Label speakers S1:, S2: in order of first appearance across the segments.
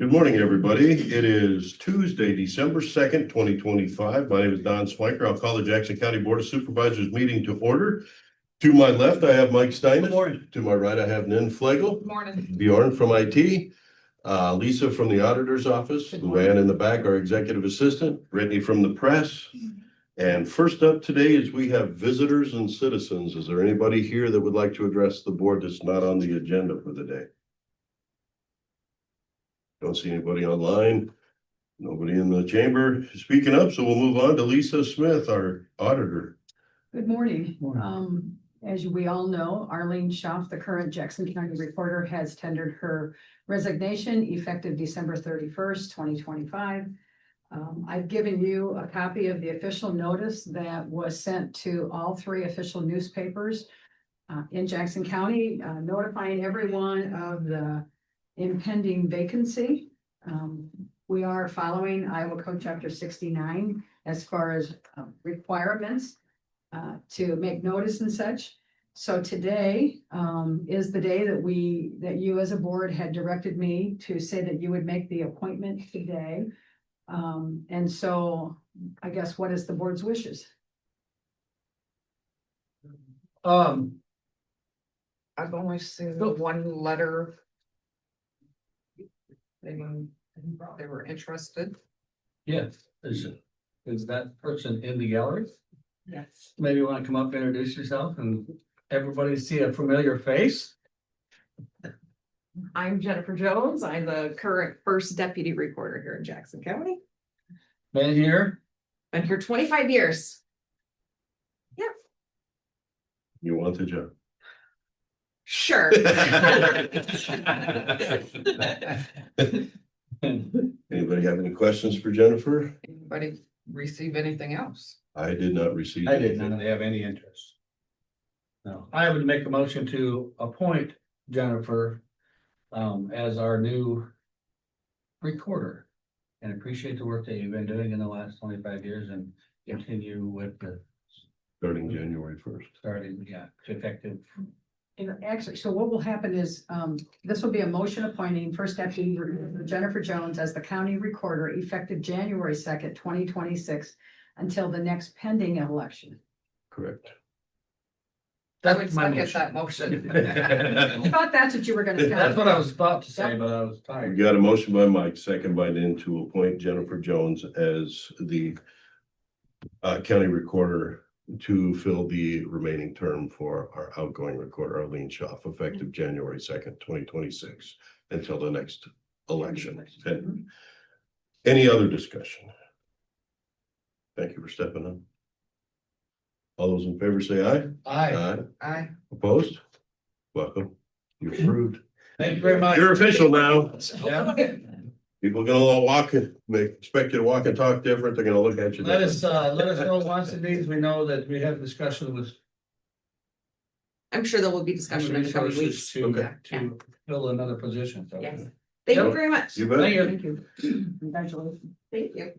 S1: Good morning, everybody. It is Tuesday, December second, twenty twenty-five. My name is Don Swanker. I'll call the Jackson County Board of Supervisors meeting to order. To my left, I have Mike Steinitz.
S2: morning.
S1: To my right, I have Nan Flegel,
S3: Morning.
S1: Bjorn from IT, uh, Lisa from the Auditor's Office, Luann in the back, our Executive Assistant, Brittany from the press. And first up today is we have visitors and citizens. Is there anybody here that would like to address the board that's not on the agenda for the day? Don't see anybody online, nobody in the chamber speaking up, so we'll move on to Lisa Smith, our auditor.
S3: Good morning.
S2: Morning.
S3: Um, as we all know, Arlene Schaff, the current Jackson County reporter, has tendered her resignation effective December thirty-first, twenty twenty-five. Um, I've given you a copy of the official notice that was sent to all three official newspapers uh, in Jackson County, uh, notifying everyone of the impending vacancy. Um, we are following Iowa Code Chapter sixty-nine as far as uh, requirements uh, to make notice and such. So today, um, is the day that we, that you as a board had directed me to say that you would make the appointment today. Um, and so I guess what is the board's wishes?
S4: Um. I've only seen the one letter. They were, they were interested.
S2: Yes, is, is that person in the gallery?
S4: Yes.
S2: Maybe you wanna come up, introduce yourself and everybody see a familiar face?
S4: I'm Jennifer Jones. I'm the current first deputy recorder here in Jackson County.
S2: Been here,
S4: Been here twenty-five years.
S1: You want the job?
S4: Sure.
S1: Anybody have any questions for Jennifer?
S4: Anybody receive anything else?
S1: I did not receive.
S2: I did
S1: anything.
S2: not have any interest. No, I would make a motion to appoint Jennifer um as our new recorder. And appreciate the work that you've been doing in the last twenty-five years and continue with the
S1: Starting January first.
S2: starting, yeah, effective.
S3: And actually, so what will happen is, um, this will be a motion appointing first deputy Jennifer Jones as the county recorder effective January second, twenty twenty-six until the next pending election.
S1: Correct.
S4: I
S2: That's
S4: would
S2: my
S4: second
S2: motion.
S4: that motion.
S3: I thought that's what you were gonna.
S2: That's what I was about to say, but I was tired.
S1: We got a motion by Mike, second by Nan to appoint Jennifer Jones as the uh, county recorder to fill the remaining term for our outgoing recorder, Arlene Schaff, effective January second, twenty twenty-six, until the next election. And
S3: Mhm.
S1: Any other discussion? Thank you for stepping up. All those in favor say aye.
S2: Aye,
S4: I,
S1: Opposed? Welcome. You're approved.
S2: thank you very much.
S1: You're official now.
S2: Yeah.
S1: People gonna all walk and, they expect you to walk and talk different, they're gonna look at you.
S2: Let us,
S1: different.
S2: uh, let us know once it means we know that we have discussion with.
S5: I'm sure there will be discussion in the coming
S2: resources
S5: weeks.
S2: To,
S1: Okay.
S2: to fill another position, so.
S5: Yes. Thank you very much.
S1: You
S2: Thank
S1: bet.
S2: you.
S3: Thank you. Congratulations.
S5: Thank you.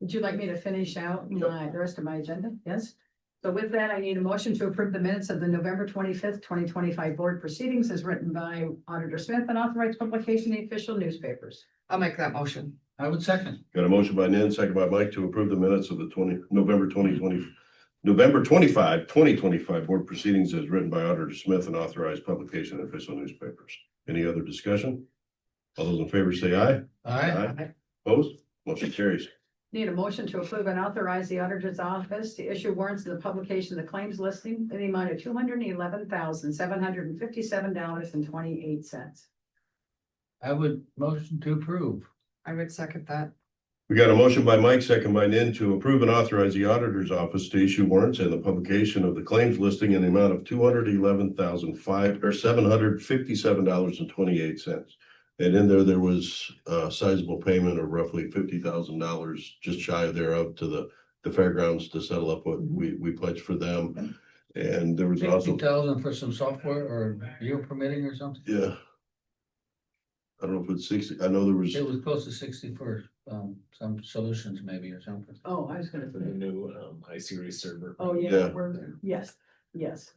S3: Would you like me to finish out my, the rest of my agenda? Yes? So with that, I need a motion to approve the minutes of the November twenty-fifth, twenty twenty-five board proceedings as written by Auditor Smith and authorized publication in official newspapers.
S4: I'll make that motion.
S2: I would second.
S1: Got a motion by Nan, second by Mike to approve the minutes of the twenty, November twenty twenty, November 25, 2025 board proceedings as written by Auditor Smith and authorized publication in official newspapers. Any other discussion? All those in favor say aye.
S2: Aye,
S1: Opposed? Motion carries.
S3: Need a motion to approve and authorize the auditor's office to issue warrants to the publication of the claims listing in the amount of two hundred and eleven thousand, seven hundred and fifty-seven dollars and twenty-eight cents.
S2: I would motion to approve.
S4: I would second that.
S1: We got a motion by Mike, second by Nan to approve and authorize the auditor's office to issue warrants and the publication of the claims listing in the amount of two hundred eleven thousand five or seven hundred fifty-seven dollars and twenty-eight cents. And in there, there was a sizable payment of roughly fifty thousand dollars, just shy thereof to the, the fairgrounds to settle up what we, we pledged for them. And there was
S2: Fifty
S1: also,
S2: thousand for some software or geo permitting or something.
S1: yeah. I don't know if it's sixty, I know there was,
S2: It was close to sixty for, um, some solutions maybe or something.
S3: Oh, I was gonna.
S6: for the new um I series server.
S3: Oh, yeah,
S1: Yeah.
S3: we're, yes, yes.